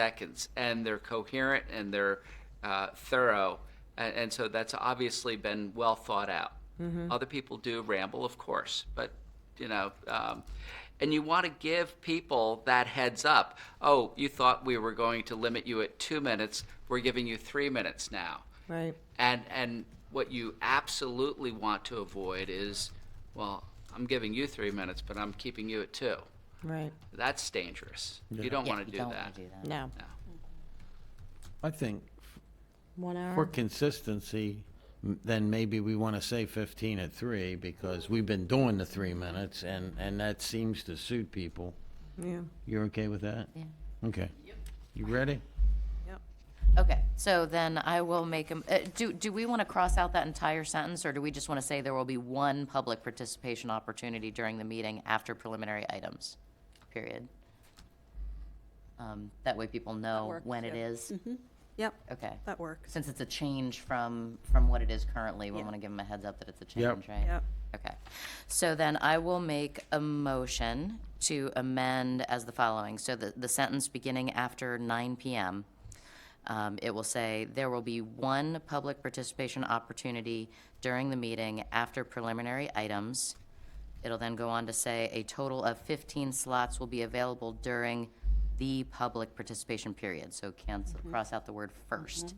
seconds, and they're coherent and they're uh, thorough, and, and so that's obviously been well thought out. Other people do ramble, of course, but you know, um, and you want to give people that heads up. Oh, you thought we were going to limit you at two minutes. We're giving you three minutes now. Right. And and what you absolutely want to avoid is, well, I'm giving you three minutes, but I'm keeping you at two. Right. That's dangerous. You don't Yeah, want to you do don't wanna that. do that. No. No. I think One hour. for consistency, m- then maybe we want to say 15 at 3 because we've been doing the three minutes and, and that seems to suit people. Yeah. You're okay with that? Yeah. Okay. You ready? Okay, so then I will make, a- uh, do, do we want to cross out that entire sentence, or do we just want to say there will be one public participation opportunity during the meeting after preliminary items, period? Um, That way people know works, Mm-hmm. when it is. Yep, Okay. that works. Since it's a change from, from what it is currently, we Yeah. want to give them a heads up that it's a Yep. change, right? Yep. Okay. So then I will make a motion to amend as the following. So the, the sentence beginning after 9 PM, um, it will say, "There will be one public participation opportunity during the meeting after preliminary items." It'll then go on to say, "A total of 15 slots will be available during the public participation period." So cancel, cross out the word first.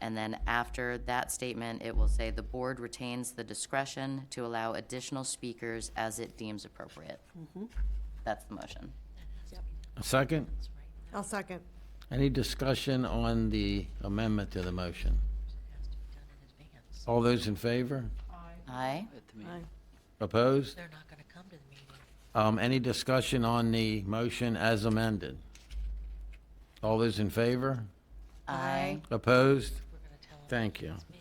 And then after that statement, it will say, "The board retains the discretion to allow additional speakers as it deems appropriate." That's the motion. A second? I'll second. Any discussion on the amendment to the motion? All those in favor? Aye? At the meeting. Opposed? They're not gonna come to the meeting. Um, any discussion on the motion as amended? All those in favor? Aye. Opposed? We're gonna tell them. Thank you. me.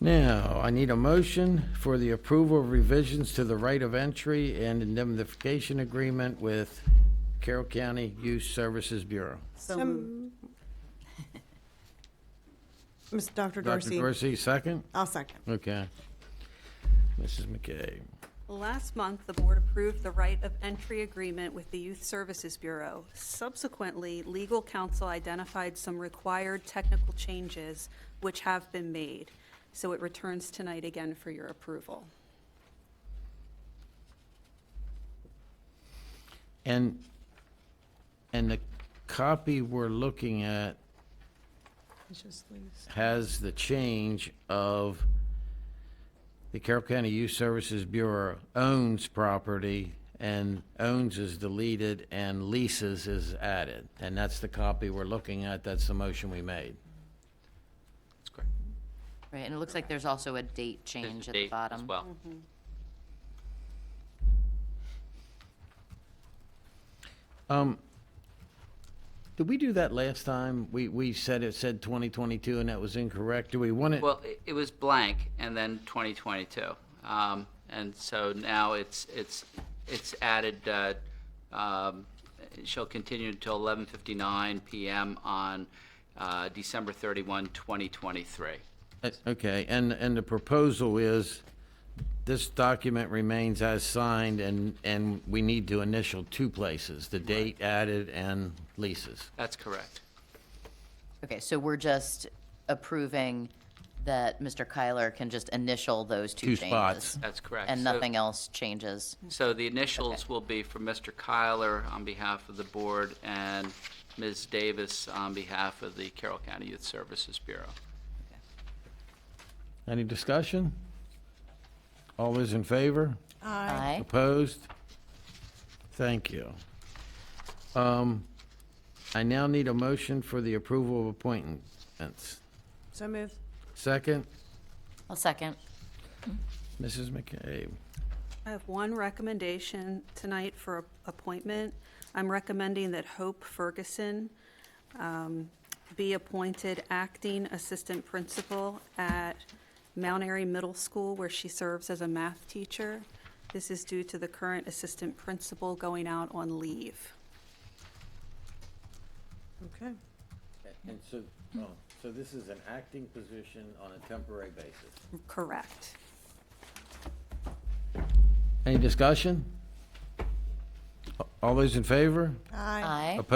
Now, I need a motion for the approval of revisions to the right of entry and indemnification agreement with Carroll County Youth Services Bureau. Some- Miss Dr. Dr. Dorsey, Dorsey, second? I'll second. Okay. Mrs. McKay. Last month, the board approved the right of entry agreement with the Youth Services Bureau. Subsequently, legal counsel identified some required technical changes which have been made. So it returns tonight again for your approval. And, and the copy we're looking at has the change of the Carroll County Youth Services Bureau owns property, and owns is deleted, and leases is added. And that's the copy we're looking at, that's the motion we made. That's correct. Right, and it looks like there's also a date There's change a at the date bottom. Mm-hmm. As well. Um, Did we do that last time? We, we said it said 2022, and that was incorrect. Do we want it? Well, it, it was blank and then 2022. Um, and so now it's, it's, it's added, uh, um, shall continue until 11:59 PM on, uh, December 31, 2023. Uh, Okay, and, and the proposal is, this document remains as signed, and, and we need to initial two places, the date added and leases. That's correct. Okay, so we're just approving that Mr. Kyler can just initial those two Two changes? spots. That's correct. And So- nothing else changes? So the initials will be from Mr. Kyler on behalf of the board and Ms. Davis on behalf of the Carroll County Youth Services Bureau. Any discussion? All those in favor? Aye? Opposed? Thank you. Um, I now need a motion for the approval of appointments. So moved. Second, I'll second. Mrs. McCabe. I have one recommendation tonight for a- appointment. I'm recommending that Hope Ferguson um, be appointed acting assistant principal at Mount Airy Middle School, where she serves as a math teacher. This is due to the current assistant principal going out on leave. Okay. And so, oh, so this is an acting position on a temporary basis? Correct. Any discussion? All those in favor? Aye. Aye? Opposed?